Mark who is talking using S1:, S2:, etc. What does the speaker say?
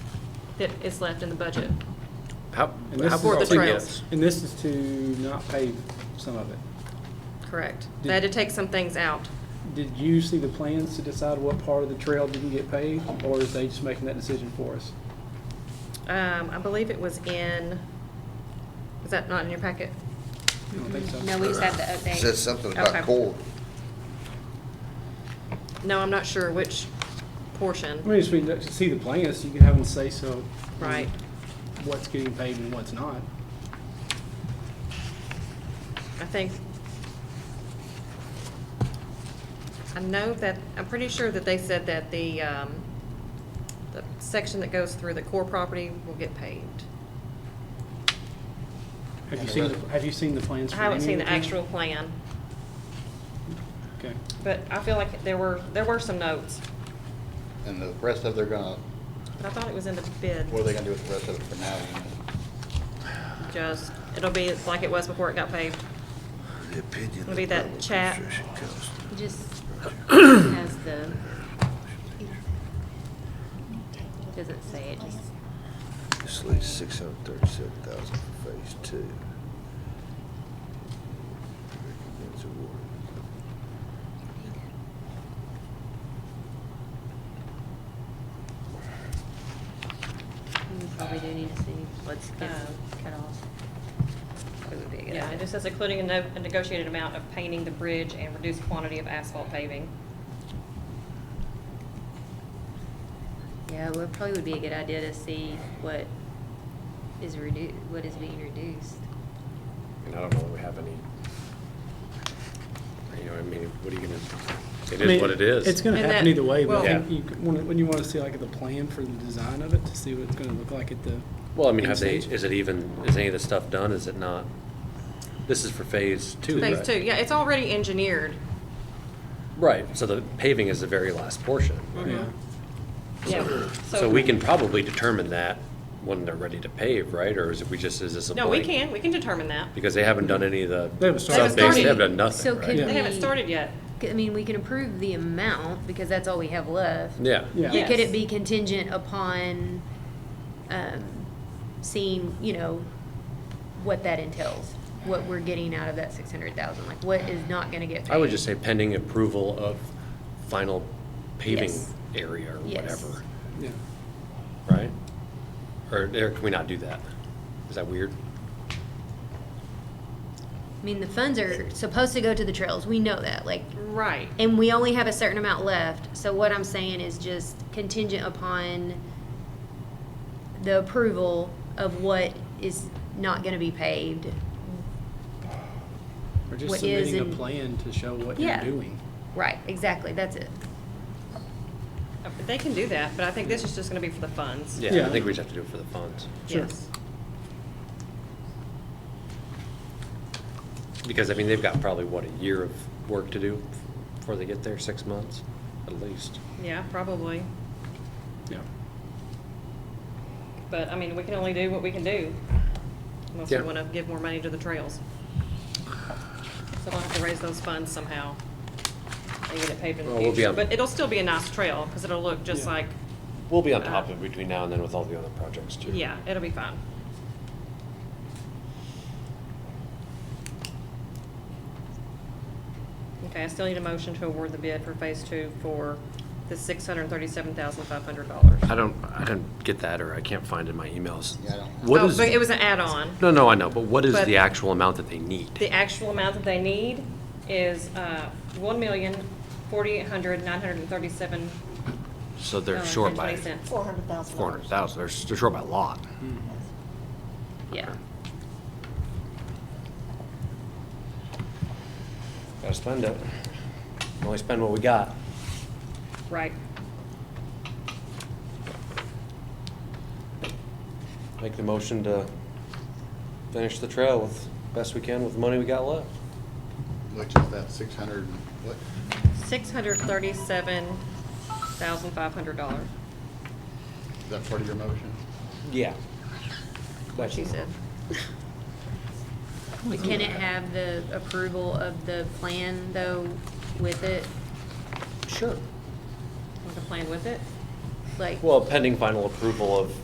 S1: that is left in the budget.
S2: How,
S3: And this
S2: how
S3: is
S1: For the
S2: broad is
S1: trails.
S2: this?
S3: And this is to not pave some of it.
S1: Correct. They had to take some things out.
S3: Did you see the plans to decide what part of the trail didn't get paved, or is they just making that decision for us?
S1: Um, I believe it was in, is that not in your packet?
S3: I don't think so.
S4: No, we just have to update.
S5: Says something
S1: Okay.
S5: about core.
S1: No, I'm not sure which
S3: I
S1: portion,
S3: mean, if we see the plans, you can have them say so.
S1: right?
S3: What's getting paved and what's not.
S1: I think, I know that, I'm pretty sure that they said that the, um, the section that goes through the core property will get paved.
S3: Have you seen, the- have you seen the plans?
S1: I
S3: for
S1: haven't
S3: any
S1: seen
S3: of
S1: the actual plan,
S3: Okay.
S1: but I feel like there were, there were some notes,
S5: And the rest of they're gonna,
S1: but I thought it was in the bid.
S5: what are they gonna do with the rest of it for now? you
S1: Just, it'll be like it was before it got paved.
S5: know? The opinion.
S1: It'll be that chat.
S4: Just has the, doesn't say it, just,
S5: This leaves six hundred thirty-seven thousand for phase two.
S4: we probably do need to see what's gets
S1: Um,
S4: cut off. It would be a good
S1: Yeah,
S4: idea.
S1: it just says including a no- a negotiated amount of painting the bridge and reduced quantity of asphalt paving.
S4: Yeah, well, it probably would be a good idea to see what is redu, what is being reduced.
S2: And I don't know that we have any, you know, I mean, what are you gonna, it
S3: I mean,
S2: is what it is.
S3: It's gonna
S1: And
S3: happen
S1: that-
S3: either way, but
S2: well-
S3: I think you, wanna- when you wanna see like the plan for the design of it, to see what it's gonna look like at the.
S2: Well, I mean, have they,
S3: end stage.
S2: is it even, is any of this stuff done? Is it not? This is for phase two,
S1: Phase
S2: right?
S1: two, yeah, it's already engineered.
S2: Right, so the paving is the very last portion.
S3: Yeah.
S1: Yeah.
S2: So we can probably determine that when they're ready to pave, right? Or is it, we just, is this a
S1: No,
S2: blank?
S1: we can, we can determine that.
S2: Because they haven't done any of the.
S3: They haven't started.
S2: sub-base, They
S1: They
S2: have
S1: haven't
S2: done
S4: So
S2: nothing,
S4: could
S3: Yeah.
S2: right?
S1: They haven't
S4: we-
S1: started yet.
S4: I mean, we can approve the amount, because that's all we have left.
S2: Yeah.
S3: Yeah.
S4: But could
S1: Yes.
S4: it be contingent upon, um, seeing, you know, what that entails? What we're getting out of that six hundred thousand, like what is not gonna get paid?
S2: I would just say pending approval of final paving
S4: Yes.
S2: area or
S4: Yes.
S2: whatever,
S3: Yeah.
S2: right? Or, or can we not do that? Is that weird?
S4: I mean, the funds are supposed to go to the trails, we know that, like,
S1: Right.
S4: and we only have a certain amount left, so what I'm saying is just contingent upon the approval of what is not gonna be paved.
S3: Or just
S4: What is
S3: submitting a
S4: and-
S3: plan to show what you're
S4: Yeah.
S3: doing.
S4: Right, exactly, that's it.
S1: They can do that, but I think this is just gonna be for the funds.
S2: Yeah,
S3: Yeah.
S2: I think we just have to do it for the funds.
S3: Sure.
S1: Yes.
S2: Because, I mean, they've got probably, what, a year of work to do before they get there, six months at least.
S1: Yeah, probably.
S3: Yeah.
S1: But, I mean, we can only do what we can do. Unless we
S2: Yeah.
S1: wanna give more money to the trails. So we'll have to raise those funds somehow. And get it paved in
S2: Well,
S1: the
S2: we'll be
S1: future.
S2: on-
S1: But it'll still be a nice trail, cause it'll look just
S3: Yeah.
S1: like,
S2: We'll be on top of it between now and then with all the other projects too.
S1: yeah, it'll be fine. Okay, I still need a motion to award the bid for phase two for the six hundred and thirty-seven thousand five hundred dollars.
S2: I don't, I don't get that, or I can't find it in my emails.
S5: Yeah, I don't-
S2: What
S1: Oh,
S2: is,
S1: but it was an add-on.
S2: no, no, I know, but what is
S1: But-
S2: the actual amount that they need?
S1: The actual amount that they need is uh, one million, forty-eight hundred, nine hundred and thirty-seven. uh,
S2: So
S1: Oh,
S2: they're short by
S1: Four hundred.
S2: four hundred thousand, they're, s- they're short by a lot.
S1: Yeah.
S2: Gotta spend it. Only spend what we got.
S1: Right.
S2: Make the motion to finish the trail with best we can with the money we got left.
S5: Which is that six hundred, what,
S1: Six hundred thirty-seven thousand five hundred dollars,
S5: is that part of your motion?
S2: Yeah.
S1: what she said.
S4: But can it have the approval of the plan, though, with it?
S2: Sure.
S1: Want to plan with it?
S4: Like,
S2: Well, pending final approval of